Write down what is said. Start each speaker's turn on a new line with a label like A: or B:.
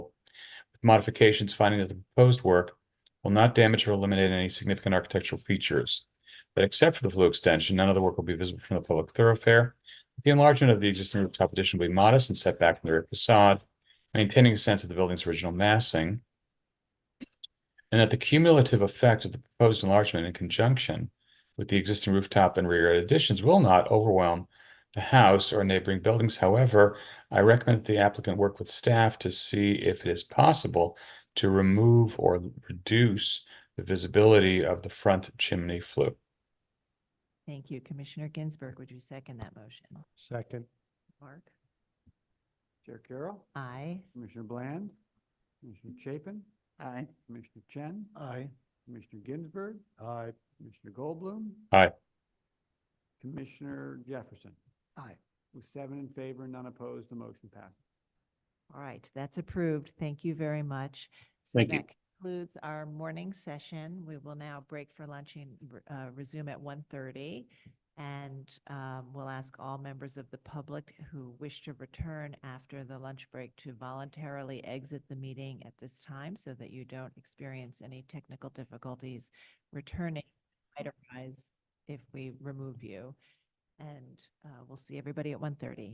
A: modifications finding that the proposed work will not damage or eliminate any significant architectural features. But except for the flue extension, none of the work will be visible from the public thoroughfare. The enlargement of the existing rooftop addition will be modest and set back from the rear facade, maintaining a sense of the building's original massing. And that the cumulative effect of the proposed enlargement in conjunction with the existing rooftop and rear yard additions will not overwhelm the house or neighboring buildings. However, I recommend that the applicant work with staff to see if it is possible to remove or reduce the visibility of the front chimney flue.
B: Thank you. Commissioner Ginsburg, would you second that motion?
C: Second.
B: Mark?
C: Chair Carroll,
B: Aye.
C: Commissioner Bland, Commissioner Chapin. Aye. Commissioner Chen. Aye. Commissioner Ginsburg. Aye. Commissioner Goldblum.
A: Aye.
C: Commissioner Jefferson. Aye. With seven in favor, none opposed, the motion passes.
B: All right, that's approved. Thank you very much. So
D: Thank you.
B: That concludes our morning session. We will now break for lunch and re- uh, resume at 1:30. And um, we'll ask all members of the public who wish to return after the lunch break to voluntarily exit the meeting at this time so that you don't experience any technical difficulties returning might arise if we remove you. And uh, we'll see everybody at 1:30.